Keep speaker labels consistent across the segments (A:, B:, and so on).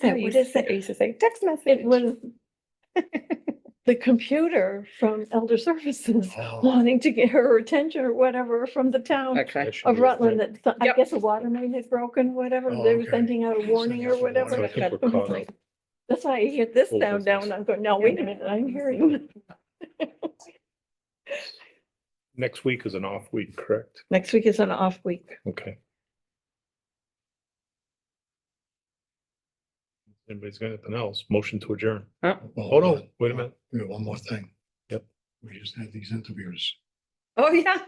A: that? What is that?
B: I used to say text message.
A: It was the computer from Elder Services
C: Oh,
A: wanting to get her attention or whatever from the town
B: Okay.
C: that should
A: of
C: be a
A: Rutland
C: thing.
A: that, so- I
B: Yep.
A: guess a water main had broken, whatever.
C: Oh,
A: They were
C: okay.
A: sending out a warning or
C: Sending out a warning.
B: So I
A: whatever.
B: think
C: we're
A: I'm
C: caught
A: like,
C: up.
A: That's why I hear this
C: Full
A: sound now and
C: business.
A: I'm going, no, wait a minute, I'm hearing.
C: Next week is an off week, correct?
A: Next week is an off week.
C: Okay. Anybody's got anything else? Motion to adjourn. Oh,
D: Hold
C: no, wait a minute.
D: We have one more thing.
C: Yep.
D: We just had these interviews.
B: Oh, yeah.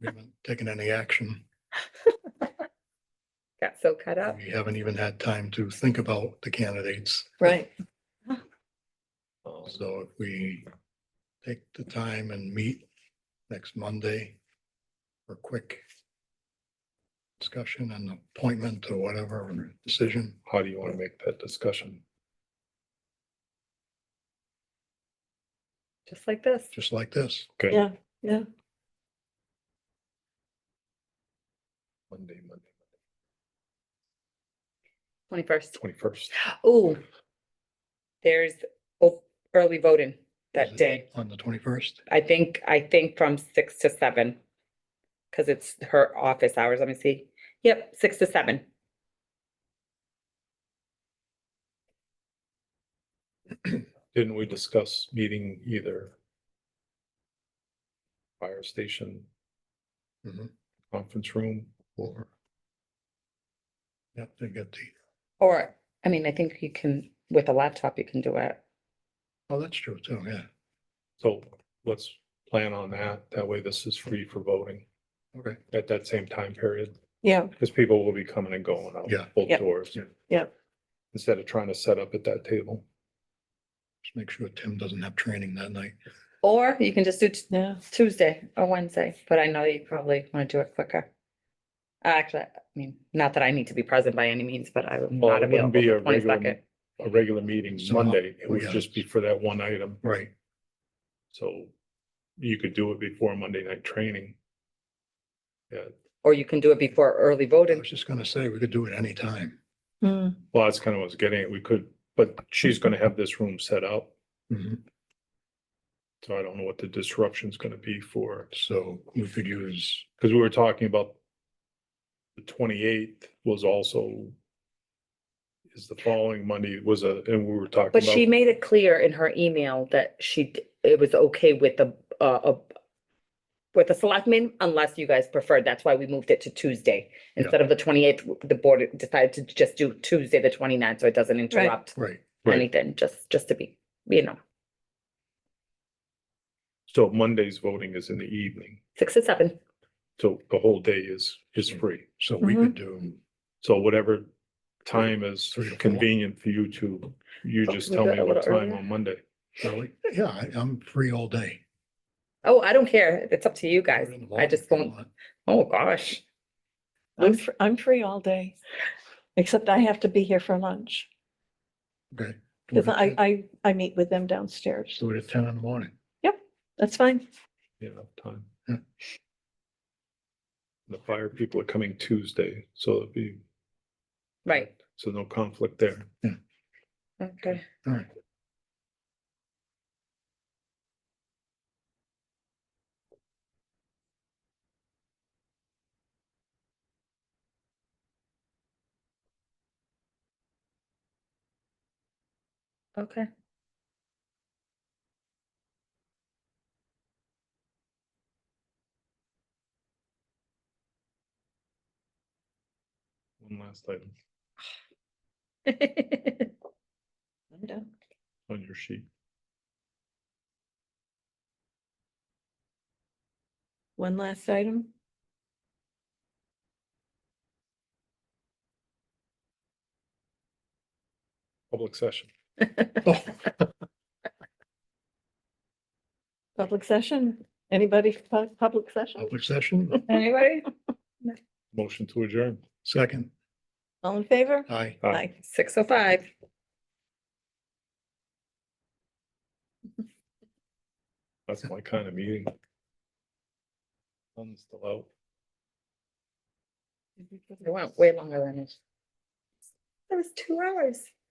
D: We haven't taken any action.
B: Got so cut up.
D: We haven't even had time to think about the candidates.
A: Right.
D: So if we take the time and meet next Monday for a quick discussion and appointment or whatever, or decision.
C: How do you want to make that discussion?
B: Just like this.
D: just like this.
C: Okay.
A: Yeah, yeah.
C: Monday, Monday,
B: Twenty-first.
C: twenty-first.
B: Oh. There's o- early voting
D: Is
B: that
D: it
B: day.
D: On the twenty-first.
B: I think, I think from six to seven. Cause it's her office hours. Let me see. Yep, six to seven.
C: Didn't we discuss meeting either fire station, conference room,
D: Mm-hmm. Or. Yep, they get the,
B: Or, I mean, I think you can, with a laptop, you can do it.
D: oh, that's true too, yeah.
C: So let's plan on that. That way this is free for voting
D: Okay,
C: at that same time period.
A: Yeah,
C: Because people will be coming and going out
D: Yeah.
C: both
A: Yep.
C: doors.
D: Yeah.
A: Yep.
C: Instead of trying to set up at that table.
D: just make sure Tim doesn't have training that night.
B: Or you can just do t-
A: yeah.
B: Tuesday or Wednesday, but I know you probably want to do it quicker. Actually, I mean, not that I need to be present by any means, but I'm
C: Well,
B: not
C: it wouldn't
B: available
C: be a
B: for
C: regular,
B: twenty-second.
C: a regular meeting
D: So, Oh,
C: Monday. It
D: we
C: would
D: got
C: just
D: it.
C: be for that one item.
D: Right.
C: So you could do it before Monday night training. Yeah,
B: Or you can do it before early
D: I
B: voting.
D: was just gonna say, we could do it anytime.
A: Hmm.
C: well, that's kind of what I was getting at. We could, but she's gonna have this room set up.
D: Mhm.
C: So I don't know what the disruption's gonna be for,
D: So we could use,
C: because we were talking about the twenty-eighth was also is the following Monday was a, and we were talking
B: But she
C: about,
B: made it clear in her email that she, d- it was okay with the, uh, uh, with the selectmen unless you guys preferred. That's why we moved it to Tuesday.
D: Yeah.
B: Instead of the twenty-eighth, the board decided to just do Tuesday, the 29th, so it doesn't interrupt
D: right,
C: Right.
B: anything, just, just to be, you know,
C: so Monday's voting is in the evening.
B: six to seven.
C: So the whole day is, is free.
D: so we
A: Mhm.
D: could do,
C: So whatever time is
D: Three to four.
C: convenient for you to, you
B: Oh,
C: just
B: we
C: tell
B: do it
C: me
B: a
C: what
B: little
C: time
B: earlier?
C: on Monday.
D: Really? yeah, I- I'm free all day.
B: Oh, I don't care. It's up to you guys.
D: Put it in the
B: I
D: morning
B: just
D: if you
B: won't,
D: want.
B: oh, gosh.
A: I'm, fr- I'm free all day, except I have to be here for lunch.
D: Okay. Do
A: Cause
D: it at
A: I,
D: 10
A: I, I meet with them downstairs.
D: Do it at ten in the morning.
A: That's fine.
C: Yeah, time.
D: Yeah.
C: The fire people are coming Tuesday, so it'll be,
B: Right,
C: so no conflict there.
B: okay.
D: All right,
B: Okay.
C: One last item
A: I'm done.
C: on your sheet.
A: One last item.
C: Public session.
D: Oh,
A: Public session. Anybody for pub- public session?
D: public session,
B: Anybody?
C: Motion to adjourn.
D: second,
A: All in favor?
D: aye.
C: Aye.
A: Aye.
B: Six oh five.
C: That's my kind of meeting. Sun's still out.
B: It went way longer than it. That was two hours.